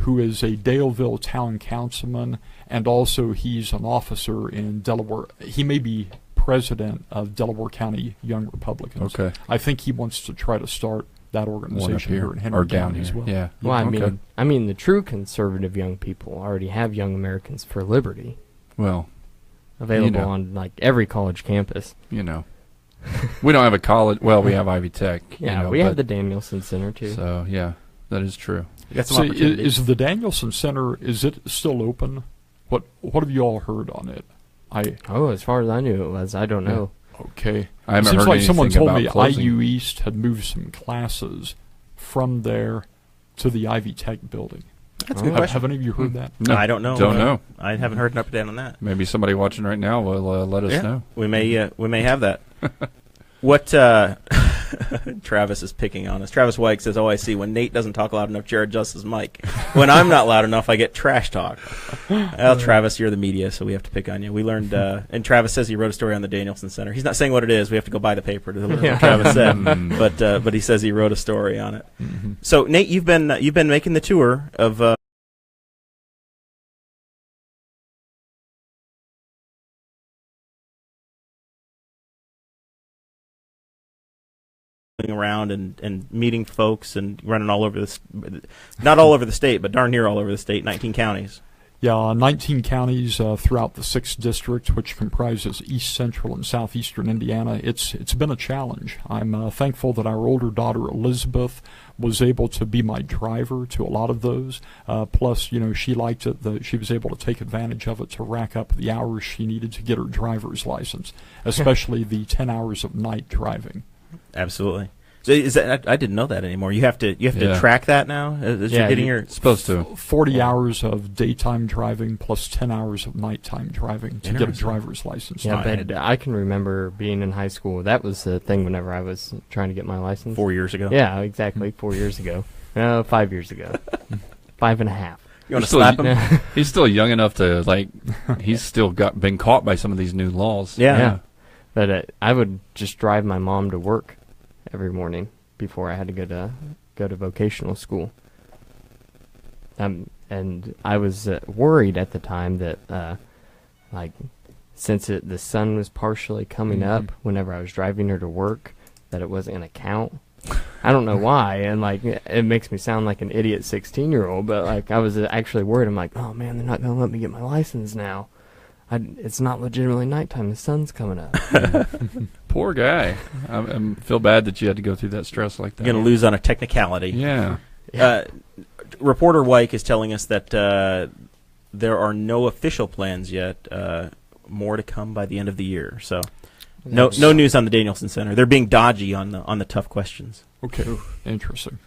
who is a Daleville town councilman, and also he's an officer in Delaware. He may be president of Delaware County Young Republicans. Okay. I think he wants to try to start that One up organization here here in Henry or down County here. as well. Yeah. Well, I Okay. mean, I mean, the true conservative young people already have Young Americans for Liberty Well, available know. on like every college campus. you know, we don't have a college. Well, we have Ivy Tech. you Yeah, know, we have the but- Danielson Center too. So yeah, that is true. That's So an i- opportunity. is, the Danielson Center is it still open? What what have you all heard on it? I oh, as far as I knew, it was. I don't Yeah. know. okay. I haven't it seems heard like someone anything told about me E. closing. IU East had moved some classes from there to the Ivy Tech building. That's Oh. a good Have, question. Hmm. have any of you heard that? No, I don't know. Don't know. I haven't heard an up and down on that. Maybe somebody watching right now will uh, let us Yeah. know. We may uh, we may have that. what uh, Travis is picking on us. Travis White says, "Oh, I see. When Nate doesn't talk loud enough, Jared adjusts his mic. When I'm not loud enough, I get trash talk." Well, Travis, you're the media, so we have to pick on you. We learned, uh, and Travis says he wrote a story on the Danielson Center. He's not saying what it is. We have to go buy the paper to learn Yeah. what Travis said, Mm. but uh, but he says he wrote a story on it. Mm-hmm. So Nate, you've been uh, you've been making the tour of uh, going around and, and meeting folks and running all over this not all over the state but darn near all over the state 19 counties Yeah, 19 counties uh, throughout the sixth district, which comprises east central and southeastern Indiana. It's it's been a challenge. I'm uh, thankful that our older daughter Elizabeth was able to be my driver to a lot of those. Uh, plus, you know, she liked it that she was able to take advantage of it to rack up the hours she needed to get her driver's license, especially the 10 hours of night driving. absolutely so is that I, I didn't know that anymore you have to you have Yeah. to track that now Uh, as, as Yeah, you're getting you- your Supposed to. 40 hours of daytime driving plus 10 hours of nighttime driving to get a Interesting. driver's license. Yeah, not but added. I can remember being in high school. That was the thing whenever I was trying to get my license. four years ago Yeah, exactly. Four years ago. No, five years ago. five and a half. you want to So slap you- him He's still young enough to like. He's still got been caught by some of these new laws. Yeah. Yeah. But uh, I would just drive my mom to work every morning before I had to go to go to vocational school. Um, and I was uh, worried at the time that, uh, like, since it, the sun was partially coming Mhm. up whenever I was driving her to work, that it wasn't gonna count. I don't know why, and like it makes me sound like an idiot sixteen-year-old, but like I was uh, actually worried. I'm like, oh man, they're not gonna let me get my license now. I, it's not legitimately nighttime. The sun's coming up. Poor guy. I, I feel bad that you had to go through that stress like that. you're going to lose on a technicality Yeah. Uh, reporter Wyke is telling us that uh, there are no official plans yet. Uh, more to come by the end of the year. So no no news on the Danielson Center. They're being dodgy on the on the tough questions. Okay, interesting.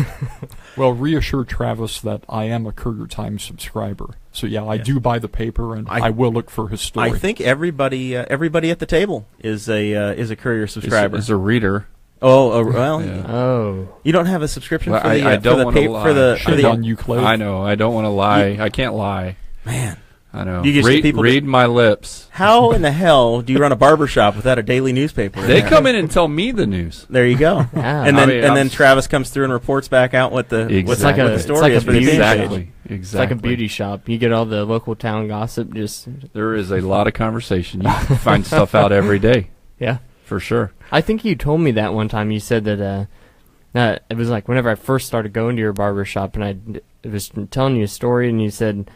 well, reassure Travis that I am a Courier Times subscriber. So yeah, I Yeah. do buy the paper, and I- I, will look for his story. I think everybody uh, everybody at the table is a uh, is a courier subscriber. As, as a reader. oh uh, well, Yeah. Oh, you don't have a subscription Well, for I- the, uh, I for, don't the wanna pa- lie. for the for Shame the on you, Clay. I know. I don't want to lie. I can't lie. man. I know. You just get read people to- read my lips. How in the hell do you run a barber shop without a daily newspaper? They Yeah. come in and tell me the news. There you go. yeah. and then I mean, and I'm then s- Travis comes through and reports back out what the what's Exactly. what the It's story like a is for the beauty fan page. Exactly. Exactly. it's like a beauty shop. You get all the local town gossip. Just There is a lot of conversation. You find stuff out every day yeah. for sure. I think you told me that one time. You said that uh, uh, it was like whenever I first started going to your barber shop, and I d- it was telling you a story, and you said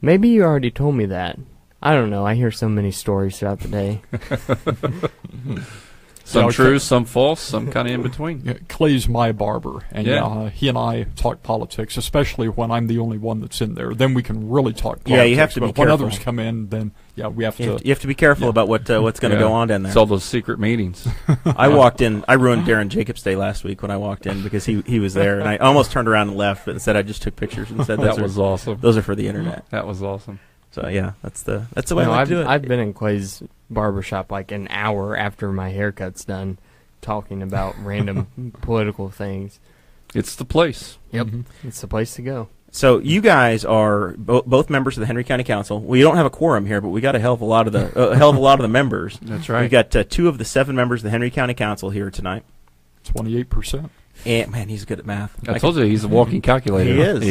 maybe you already told me that. I don't know. I hear so many stories throughout the day. Some okay. true, some false, some kind of in between. Yeah, Clay's my barber, and yeah, Yeah. uh, he and I talk politics, especially when I'm the only one that's in there. Then we can really talk. Politics. Yeah, you have to but be when careful. others come in, then yeah, we have You have to. to, you have to be careful about what uh, what's going to Yeah. go on down there. It's all those secret meetings. I walked in. I ruined Darren Jacobs' day last week when I walked in because he he was there, and I almost turned around and left, but instead I just took pictures and said those that are was awesome. those are for the internet. That was awesome. So yeah, that's the that's the way No, I like I've, to do it. I've been in Clay's barber shop like an hour after my haircut's done, talking about random political things. It's the place. Yep, Mm-hmm. Mm-hmm. it's the place to go. so you guys are bo- both members of the Henry County Council. We don't have a quorum here, but we got a hell of a lot of the a hell of a lot of the members. That's We've got uh, two of the seven members of the Henry County Council here tonight. Twenty-eight percent. And man, he's good at math. I I told you he's a walking calculator. He is.